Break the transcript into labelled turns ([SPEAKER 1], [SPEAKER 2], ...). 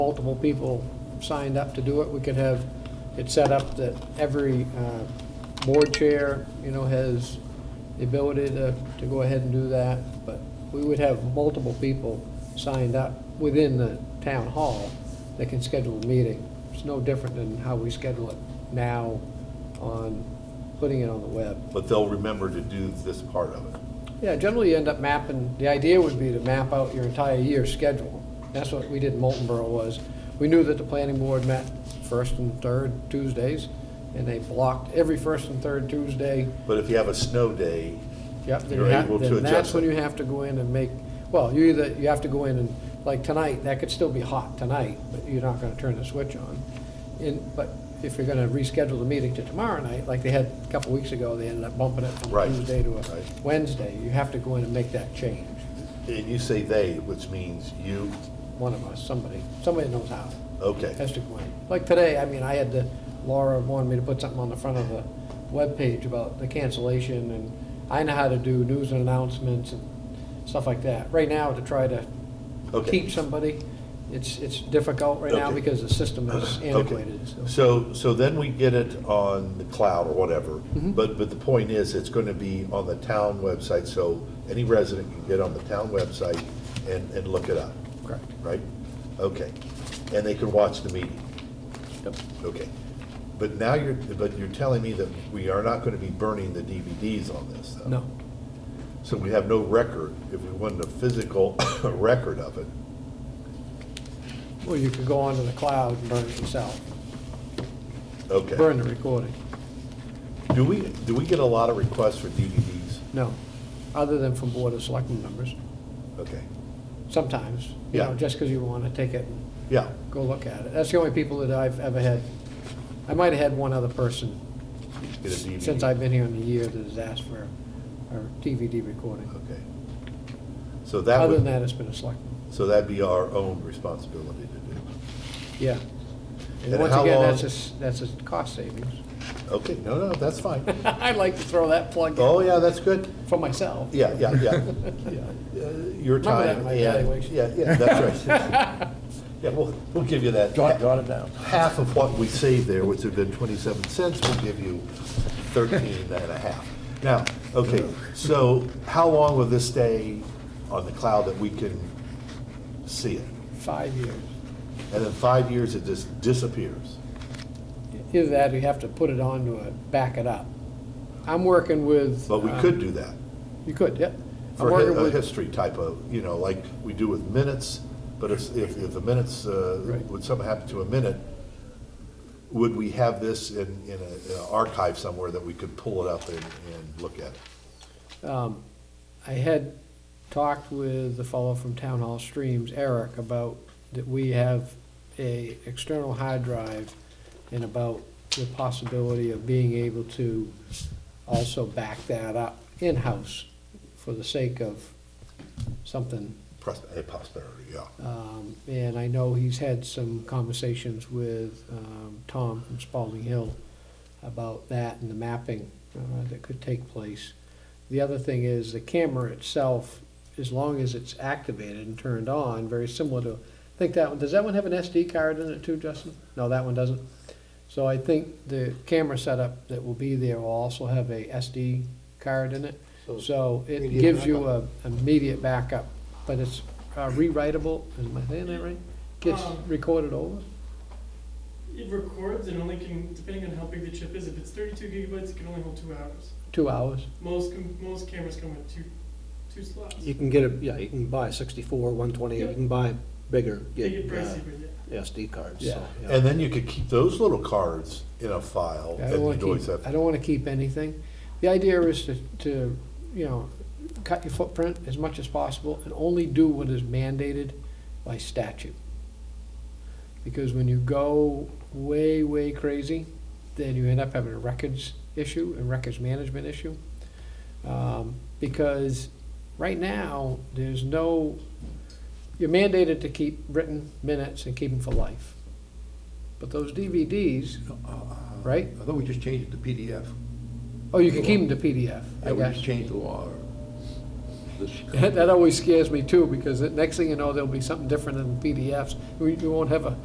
[SPEAKER 1] multiple people signed up to do it, we could have it set up that every uh, board chair, you know, has the ability to, to go ahead and do that, but we would have multiple people signed up within the town hall that can schedule a meeting. It's no different than how we schedule it now on putting it on the web.
[SPEAKER 2] But they'll remember to do this part of it.
[SPEAKER 1] Yeah, generally you end up mapping, the idea would be to map out your entire year's schedule. That's what we did in Molten Borough was, we knew that the planning board met first and third Tuesdays, and they blocked every first and third Tuesday.
[SPEAKER 2] But if you have a snow day,
[SPEAKER 1] Yep, then you
[SPEAKER 2] You're
[SPEAKER 1] have-
[SPEAKER 2] able to
[SPEAKER 1] then that's
[SPEAKER 2] adjust
[SPEAKER 1] when
[SPEAKER 2] it.
[SPEAKER 1] you have to go in and make, well, you either, you have to go in and, like tonight, that could still be hot tonight, but you're not gonna turn the switch on. And, but if you're gonna reschedule the meeting to tomorrow night, like they had a couple weeks ago, they ended up bumping it from
[SPEAKER 2] Right,
[SPEAKER 1] Tuesday to a
[SPEAKER 2] right.
[SPEAKER 1] Wednesday, you have to go in and make that change.
[SPEAKER 2] and you say they, which means you,
[SPEAKER 1] one of us, somebody, somebody knows how,
[SPEAKER 2] okay.
[SPEAKER 1] has to go in. Like today, I mean, I had to, Laura wanted me to put something on the front of the webpage about the cancellation, and I know how to do news and announcements and stuff like that. Right now, to try to
[SPEAKER 2] Okay.
[SPEAKER 1] keep somebody, it's, it's difficult right now
[SPEAKER 2] Okay.
[SPEAKER 1] because the system is
[SPEAKER 2] Okay.
[SPEAKER 1] antiquated, so.
[SPEAKER 2] So, so then we get it on the cloud or whatever.
[SPEAKER 1] Mhm.
[SPEAKER 2] But, but the point is, it's going to be on the town website, so any resident can get on the town website and, and look it up,
[SPEAKER 1] Correct.
[SPEAKER 2] right? Okay. And they can watch the meeting,
[SPEAKER 1] Yep.
[SPEAKER 2] okay. But now you're, but you're telling me that we are not going to be burning the DVDs on this, though?
[SPEAKER 1] No,
[SPEAKER 2] So we have no record, if we wanted a physical record of it.
[SPEAKER 1] well, you could go onto the cloud and burn it yourself, burn
[SPEAKER 2] Okay.
[SPEAKER 1] the recording.
[SPEAKER 2] Do we, do we get a lot of requests for DVDs?
[SPEAKER 1] No, other than from Board of Selectmen members.
[SPEAKER 2] Okay,
[SPEAKER 1] sometimes, you know,
[SPEAKER 2] Yeah.
[SPEAKER 1] just because you want to take it and
[SPEAKER 2] yeah,
[SPEAKER 1] go look at it. That's the only people that I've ever had. I might have had one other person
[SPEAKER 2] get a DVD.
[SPEAKER 1] since I've been here in a year that has asked for a DVD recording.
[SPEAKER 2] Okay. So that
[SPEAKER 1] Other than
[SPEAKER 2] would,
[SPEAKER 1] that, it's been a selectman,
[SPEAKER 2] so that'd be our own responsibility to do.
[SPEAKER 1] yeah. And
[SPEAKER 2] And
[SPEAKER 1] once
[SPEAKER 2] how
[SPEAKER 1] again,
[SPEAKER 2] long-
[SPEAKER 1] that's a, s- that's a cost savings.
[SPEAKER 2] Okay, no, no, that's fine.
[SPEAKER 1] I like to throw that plug in
[SPEAKER 2] Oh, yeah, that's good.
[SPEAKER 1] for myself.
[SPEAKER 2] Yeah, yeah, yeah, yeah. Uh, Your
[SPEAKER 1] Remember that in
[SPEAKER 2] time
[SPEAKER 1] my
[SPEAKER 2] and,
[SPEAKER 1] evaluation.
[SPEAKER 2] yeah, yeah, that's right. Yeah, we'll, we'll give you that.
[SPEAKER 3] Jot, jot it down.
[SPEAKER 2] half of what we saved there, which would have been 27 cents, we'll give you 13 and a half. Now, okay, so how long will this stay on the cloud that we can see it?
[SPEAKER 1] Five years.
[SPEAKER 2] And in five years, it just disappears?
[SPEAKER 1] Either that or you have to put it on to a- back it up. I'm working with.
[SPEAKER 2] But we
[SPEAKER 1] um,
[SPEAKER 2] could do that
[SPEAKER 1] You could, yeah. I'm
[SPEAKER 2] for
[SPEAKER 1] working
[SPEAKER 2] hi- uh, a
[SPEAKER 1] with
[SPEAKER 2] history type of, you know, like we do with minutes, but if, if if the minutes, uh,
[SPEAKER 1] Right.
[SPEAKER 2] would something happen to a minute, would we have this in, in a- in an archive somewhere that we could pull it up and, and look at it?
[SPEAKER 1] Um, I had talked with the fellow from Town Hall Streams, Eric, about that we have a external hard drive and about the possibility of being able to also back that up in-house for the sake of something.
[SPEAKER 2] Pros- eh, Posterity, yeah.
[SPEAKER 1] Um, and I know he's had some conversations with, um, Tom from Spalding Hill about that and the mapping, uh, that could take place. The other thing is the camera itself, as long as it's activated and turned on, very similar to, I think that one, does that one have an SD card in it too, Justin? No, that one doesn't. So I think the camera setup that will be there will also have a SD card in it. So it
[SPEAKER 3] immediate
[SPEAKER 1] gives you a immediate backup, but it's uh, rewritable, am I saying that right? Gets
[SPEAKER 4] Um,
[SPEAKER 1] recorded over?
[SPEAKER 4] It records and only can, depending on how big the chip is, if it's thirty-two gigabytes, it can only hold two hours.
[SPEAKER 1] Two hours?
[SPEAKER 4] Most, com- most cameras come with two, two slots.
[SPEAKER 5] You can get a, yeah, you can buy sixty-four, one twenty, you can buy bigger,
[SPEAKER 4] They
[SPEAKER 5] get
[SPEAKER 4] get
[SPEAKER 5] uh,
[SPEAKER 4] pricey, but yeah.
[SPEAKER 5] SD cards,
[SPEAKER 1] Yeah.
[SPEAKER 5] so. yeah.
[SPEAKER 2] And then you could keep those little cards in a file
[SPEAKER 1] I
[SPEAKER 2] and
[SPEAKER 1] don't
[SPEAKER 2] you
[SPEAKER 1] want
[SPEAKER 2] would
[SPEAKER 1] to
[SPEAKER 2] always
[SPEAKER 1] keep, I
[SPEAKER 2] have,
[SPEAKER 1] don't want to keep anything. The idea is to, to, you know, cut your footprint as much as possible and only do what is mandated by statute. Because when you go way, way crazy, then you end up having a records issue and records management issue. Um, because right now, there's no, you're mandated to keep written minutes and keep them for life. But those DVDs, right?
[SPEAKER 3] I thought we just changed it to PDF.
[SPEAKER 1] Oh, you can keep them to PDF, I
[SPEAKER 3] Yeah, we
[SPEAKER 1] guess.
[SPEAKER 3] just changed the law. this.
[SPEAKER 1] That always scares me too, because the next thing you know, there'll be something different in PDFs. We, we won't have a